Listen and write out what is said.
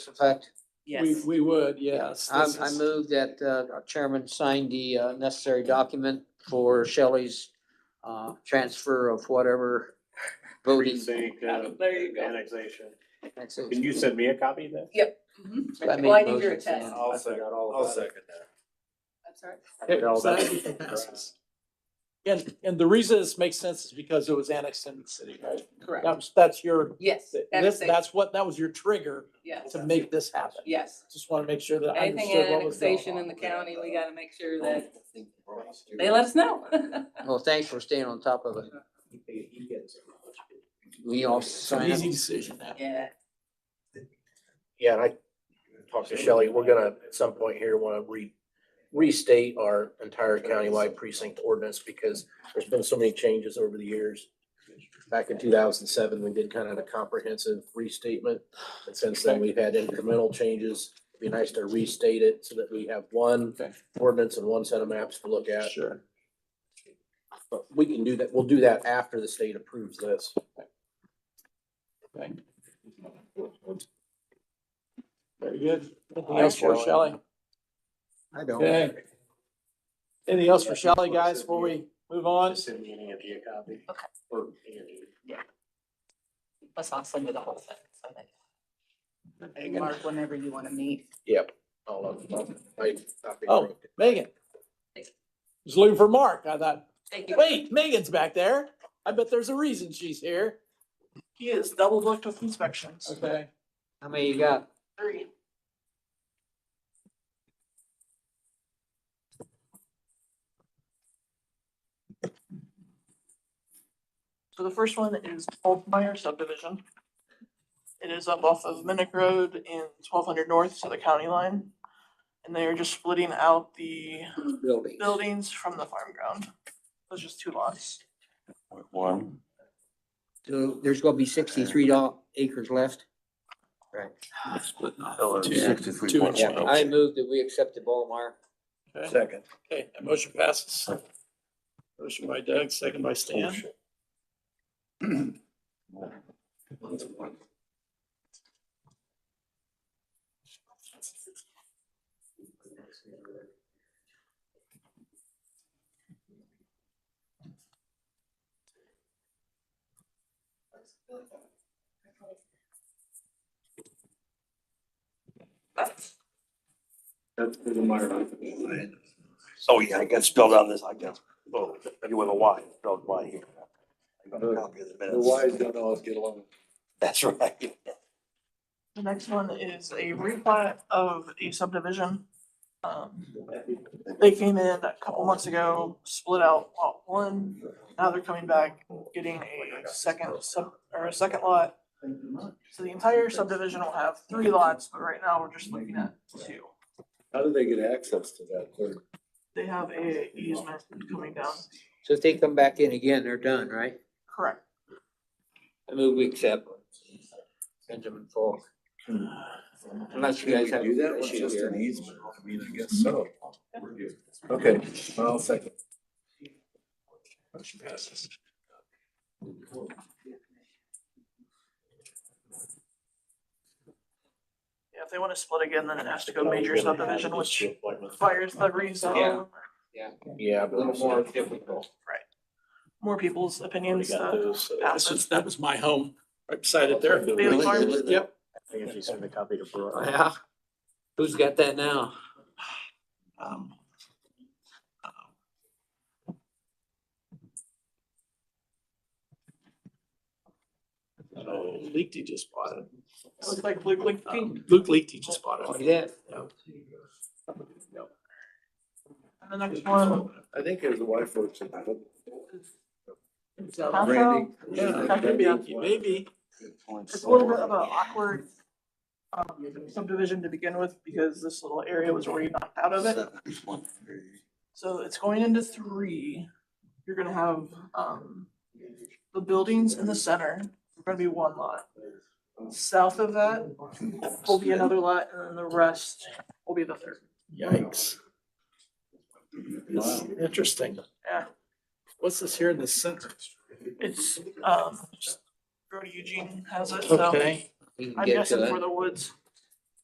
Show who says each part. Speaker 1: effect?
Speaker 2: Yes,
Speaker 3: We, we would, yes.
Speaker 1: I,
Speaker 3: This
Speaker 1: I
Speaker 3: is-
Speaker 1: move that, uh, our chairman sign the, uh, necessary document for Shelley's, uh, transfer of whatever voting.
Speaker 4: Precinct, uh,
Speaker 2: There you go.
Speaker 4: annexation.
Speaker 1: That's it.
Speaker 4: Can you send me a copy of that?
Speaker 2: Mhm.
Speaker 1: I made
Speaker 2: Well, I need your
Speaker 1: motions,
Speaker 2: attest.
Speaker 1: yeah.
Speaker 5: I'll
Speaker 4: I
Speaker 5: second,
Speaker 4: forgot all
Speaker 5: I'll
Speaker 4: about it.
Speaker 5: second that.
Speaker 2: I'm sorry.
Speaker 3: It
Speaker 4: All
Speaker 3: was
Speaker 4: that-
Speaker 3: actually passes. And, and the reason this makes sense is because it was annexed into the city, right?
Speaker 2: Correct.
Speaker 3: That's, that's your,
Speaker 2: Yes,
Speaker 3: this,
Speaker 2: that's, the-
Speaker 3: that's what, that was your trigger
Speaker 2: yes,
Speaker 3: to make this happen.
Speaker 2: yes.
Speaker 3: Just want to make sure that I
Speaker 2: Anything
Speaker 3: understood what was
Speaker 2: annexation
Speaker 3: going
Speaker 2: in
Speaker 3: on.
Speaker 2: the county, we gotta make sure that they let us know.
Speaker 1: Well, thanks for staying on top of it. We all
Speaker 3: It's an
Speaker 1: sign
Speaker 3: easy
Speaker 1: it.
Speaker 3: decision now.
Speaker 2: Yeah,
Speaker 6: Yeah, and I talked to Shelley, we're gonna at some point here wanna re, restate our entire countywide precinct ordinance because there's been so many changes over the years. Back in two thousand and seven, we did kind of a comprehensive restatement, and since then, we've had incremental changes. Be nice to restate it so that we have one
Speaker 3: Okay.
Speaker 6: ordinance and one set of maps to look at.
Speaker 3: Sure.
Speaker 6: But we can do that, we'll do that after the state approves this.
Speaker 3: Okay. Very good. Anything else for
Speaker 6: Alright, Shelley.
Speaker 3: Shelley?
Speaker 1: I don't.
Speaker 3: Okay. Anything else for Shelley, guys, before we move on?
Speaker 4: Just send me any of you a copy.
Speaker 2: Okay.
Speaker 4: Or Andy.
Speaker 2: let's not send you the whole thing. so that-
Speaker 3: Megan.
Speaker 2: Mark, whenever you wanna meet.
Speaker 6: All of them. I- I think-
Speaker 3: Oh. Megan. Was looking for Mark. I thought,
Speaker 2: Thank you.
Speaker 3: wait, Megan's back there. I bet there's a reason she's here.
Speaker 7: He is double booked with inspections.
Speaker 3: Okay.
Speaker 1: How many you got?
Speaker 7: Three. So the first one is Boltmeyer subdivision. It is up off of Minnick Road and twelve hundred north to the county line. And they are just splitting out the
Speaker 1: Building.
Speaker 7: buildings from the farm ground. Those just two lots.
Speaker 5: One.
Speaker 1: So there's gonna be sixty-three doll- acres left? Right.
Speaker 5: Sixty-three
Speaker 3: Two and
Speaker 5: point
Speaker 3: change.
Speaker 5: one.
Speaker 1: I move that we accept the Ballmeyer.
Speaker 3: Okay,
Speaker 5: Second.
Speaker 3: Okay. that motion passes. Motion by Doug, second by Stan.
Speaker 4: That's the Myron.
Speaker 5: Oh, yeah, I got spelled out this, I got, oh, you with a Y, spelled Y here. I got a copy of the minutes.
Speaker 4: don't always get along.
Speaker 5: That's right.
Speaker 7: The next one is a replat of a subdivision. Um, They came in a couple months ago, split out lot one, now they're coming back, getting a second sub, or a second lot. So the entire subdivision will have three lots, but right now we're just looking at two.
Speaker 5: How do they get access to that third?
Speaker 7: They have a easement coming down,
Speaker 1: So if they come back in again, they're done, right?
Speaker 7: correct,
Speaker 1: I move we accept. Benjamin Falk. Unless you guys have.
Speaker 5: Do that,
Speaker 1: an
Speaker 5: it's
Speaker 1: issue
Speaker 5: just
Speaker 1: here.
Speaker 5: an easement, I mean, I guess so. Okay, I'll second. Motion passes.
Speaker 7: Yeah, if they wanna split again, then it has to go major subdivision, which requires the
Speaker 1: Yeah.
Speaker 7: rezone,
Speaker 6: Yeah.
Speaker 1: A little more difficult.
Speaker 7: more people's opinions,
Speaker 3: We got
Speaker 7: uh,
Speaker 3: those. So
Speaker 7: pass
Speaker 3: This
Speaker 7: it.
Speaker 3: was, that was my home, right beside it there.
Speaker 7: Bailey Farms?
Speaker 3: Yep.
Speaker 5: I think if you send a copy to
Speaker 4: Oh,
Speaker 5: Brooke.
Speaker 1: Yeah. Who's got that now?
Speaker 3: Um, Oh, Leakey just bought it.
Speaker 7: it looks like Luke Link King.
Speaker 3: Um, Luke Leakey just bought
Speaker 5: Oh,
Speaker 1: Look
Speaker 3: it.
Speaker 1: at that.
Speaker 7: And the next one
Speaker 5: I think his wife works in.
Speaker 7: Randy.
Speaker 3: Yeah, maybe, maybe.
Speaker 7: It's a little bit of an awkward um, subdivision to begin with because this little area was already knocked out of it. So it's going into three. You're gonna have um the buildings in the center, are gonna be one lot. South of that will be another lot and then the rest will be the third.
Speaker 3: Yikes. This is interesting.
Speaker 7: Yeah.
Speaker 3: What's this here in the center?
Speaker 7: It's um, Brody Eugene has it, so
Speaker 3: Okay,
Speaker 1: We can
Speaker 7: I'm
Speaker 1: get to
Speaker 7: guessing for
Speaker 1: that.
Speaker 7: the woods.